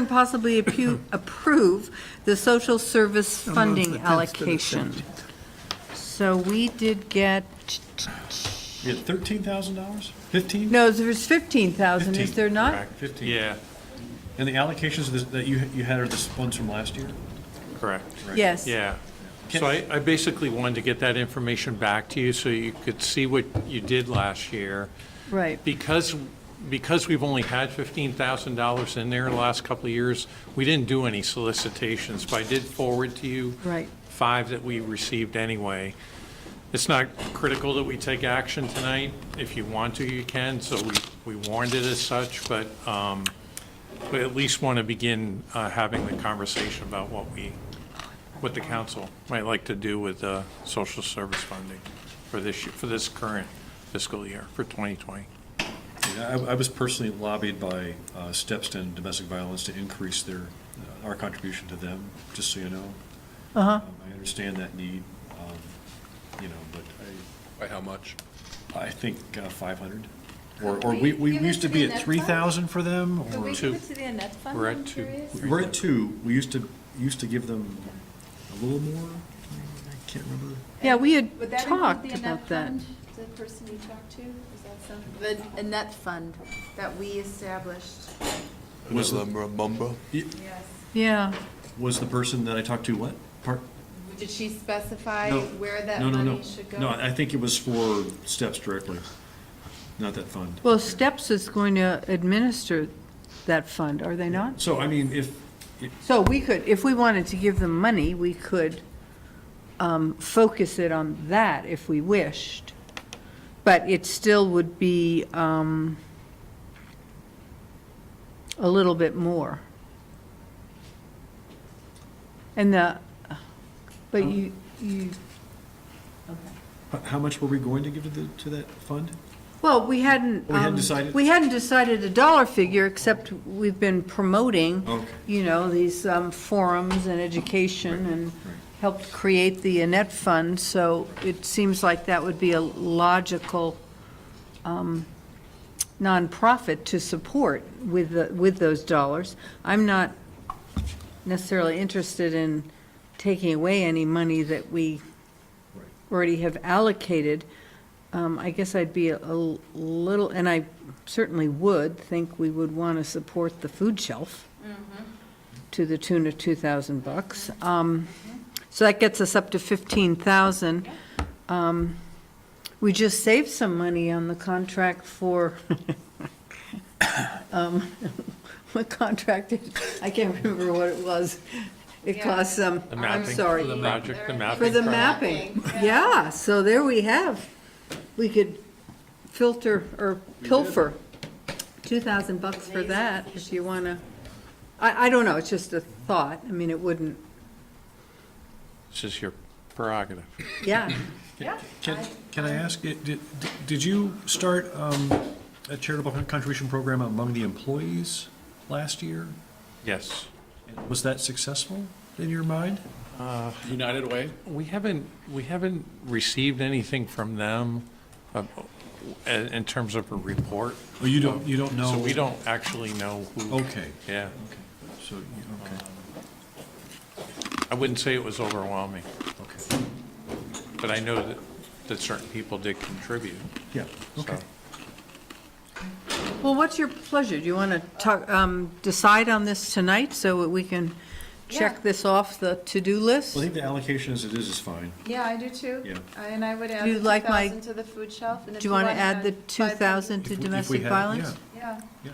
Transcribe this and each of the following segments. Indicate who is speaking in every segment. Speaker 1: and possibly appu- approve the social service funding allocation. So we did get,
Speaker 2: You had thirteen thousand dollars? Fifteen?
Speaker 1: no, there's 15,000, is there not?
Speaker 2: Fifteen.
Speaker 3: Yeah,
Speaker 2: And the allocations that- that you, you had are the ones from last year?
Speaker 3: correct,
Speaker 1: Yes.
Speaker 3: yeah. So I, I basically wanted to get that information back to you so you could see what you did last year.
Speaker 1: Right.
Speaker 3: Because, because we've only had fifteen thousand dollars in there the last couple of years, we didn't do any solicitations, but I did forward to you.
Speaker 1: Right.
Speaker 3: Five that we received anyway. It's not critical that we take action tonight. If you want to, you can, so we, we warned it as such, but, um, we at least want to begin, uh, having the conversation about what we, what the council might like to do with, uh, social service funding for this, year- for this current fiscal year, for 2020.
Speaker 2: Yeah, I, I was personally lobbied by uh, Stepston Domestic Violence to increase their, uh, our contribution to them, just so you know. Uh-huh. I understand that need, um, you know, but
Speaker 4: By how much?
Speaker 2: I, I think uh, five hundred. Or, or we, we
Speaker 5: Give it
Speaker 2: used to
Speaker 5: to
Speaker 2: be
Speaker 5: the
Speaker 2: at
Speaker 5: next
Speaker 2: three thousand for them,
Speaker 5: Do
Speaker 2: or,
Speaker 5: we
Speaker 3: two.
Speaker 5: give it to the Annette Fund?
Speaker 3: We're at
Speaker 5: I'm
Speaker 3: two.
Speaker 5: curious?
Speaker 2: we're at two. We used to, used to give them a little more, I can't remember.
Speaker 1: Yeah, we had
Speaker 5: Would that include
Speaker 1: talked
Speaker 5: the
Speaker 1: about
Speaker 5: Annette
Speaker 1: that.
Speaker 5: Fund? The person you talked to, is that something?
Speaker 6: The Annette Fund that we established.
Speaker 2: Was the-
Speaker 4: Mumbo?
Speaker 6: Yes.
Speaker 1: Yeah,
Speaker 2: Was the person that I talked to what? Part,
Speaker 6: Did she specify
Speaker 2: No.
Speaker 6: where that
Speaker 2: no, no, no.
Speaker 6: money should go?
Speaker 2: No, I think it was for steps directly, not that fund.
Speaker 1: well, STEPS is going to administer that fund, are they not?
Speaker 2: So, I mean, if,
Speaker 1: So we could, if we wanted to give them money, we could um, focus it on that if we wished, but it still would be um, a little bit more. And the, but you, you,
Speaker 2: h- how much were we going to give to the, to that fund?
Speaker 1: well, we hadn't.
Speaker 2: We hadn't
Speaker 1: um,
Speaker 2: decided?
Speaker 1: We hadn't decided a dollar figure, except we've been promoting,
Speaker 2: Okay.
Speaker 1: you know, these um, forums and education and helped create the Annette Fund, so it seems like that would be a logical um, nonprofit to support with, the- with those dollars. I'm not necessarily interested in taking away any money that we already have allocated. Um, I guess I'd be a a little, and I certainly would, think we would want to support the food shelf to the tune of 2,000 bucks. Um, So that gets us up to 15,000. Um, We just saved some money on the contract for, um, what contract, did- I can't remember what it was. It
Speaker 6: Yeah.
Speaker 1: costs, um,
Speaker 3: The
Speaker 1: I'm
Speaker 3: mapping,
Speaker 1: sorry.
Speaker 3: The project, the mapping.
Speaker 1: For the
Speaker 3: project.
Speaker 1: mapping, yeah, so there we have. We could filter or pilfer two thousand bucks for that, if you wanna. I, I don't know, it's just a thought, I mean, it wouldn't,
Speaker 3: This is your prerogative.
Speaker 1: yeah.
Speaker 2: Can, can
Speaker 6: um,
Speaker 2: I ask, i- did, did you start um, a charitable contribution program among the employees last year?
Speaker 3: Yes.
Speaker 2: Was that successful in your mind?
Speaker 4: United Way?
Speaker 3: We haven't, we haven't received anything from them uh, in in terms of a report.
Speaker 2: Oh, you don't, you don't know?
Speaker 3: So we don't actually know who.
Speaker 2: Okay,
Speaker 3: Yeah.
Speaker 2: okay, so, you- okay,
Speaker 3: I wouldn't say it was overwhelming,
Speaker 2: Um, okay,
Speaker 3: but I know that, that certain people did contribute.
Speaker 2: yeah, okay.
Speaker 3: So-
Speaker 1: Well, what's your pleasure? Do you wanna talk, um, decide on this tonight so that we can check this off the to-do list?
Speaker 2: Well, I think the allocation as it is is fine.
Speaker 6: Yeah, I do too.
Speaker 2: Yeah.
Speaker 6: I- And I would add
Speaker 1: you
Speaker 6: the
Speaker 1: like my-
Speaker 6: 2,000 to the food shelf. and if
Speaker 1: Do you wanna
Speaker 6: want
Speaker 1: add the two
Speaker 6: buy
Speaker 1: thousand
Speaker 2: If
Speaker 1: to
Speaker 2: we- if we
Speaker 1: domestic
Speaker 2: had-
Speaker 1: violence?
Speaker 2: yeah,
Speaker 6: Yeah.
Speaker 2: yeah.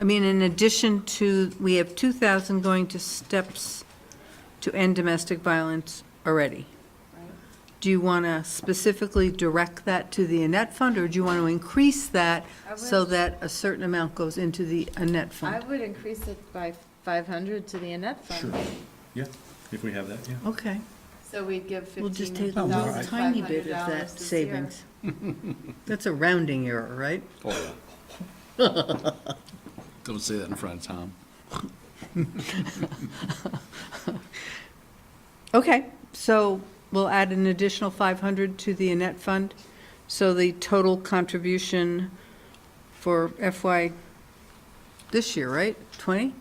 Speaker 1: I mean, in addition to, we have 2,000 going to steps to end domestic violence already. Do you want to specifically direct that to the Annette Fund, or do you want to increase that
Speaker 6: I would-
Speaker 1: so that a certain amount goes into the Annette
Speaker 6: I
Speaker 1: Fund?
Speaker 6: would increase it by 500 to the Annette
Speaker 2: Sure,
Speaker 6: Fund.
Speaker 2: yeah, if we have that, yeah.
Speaker 1: Okay,
Speaker 6: So we'd give
Speaker 1: we'll just take
Speaker 6: 15,500
Speaker 1: a little
Speaker 6: dollars
Speaker 1: tiny bit of that
Speaker 6: this year.
Speaker 1: savings. That's a rounding error, right?
Speaker 7: Don't say that in front of Tom.
Speaker 1: Okay, so we'll add an additional 500 to the Annette Fund. So the total contribution for FY this year, right? 20?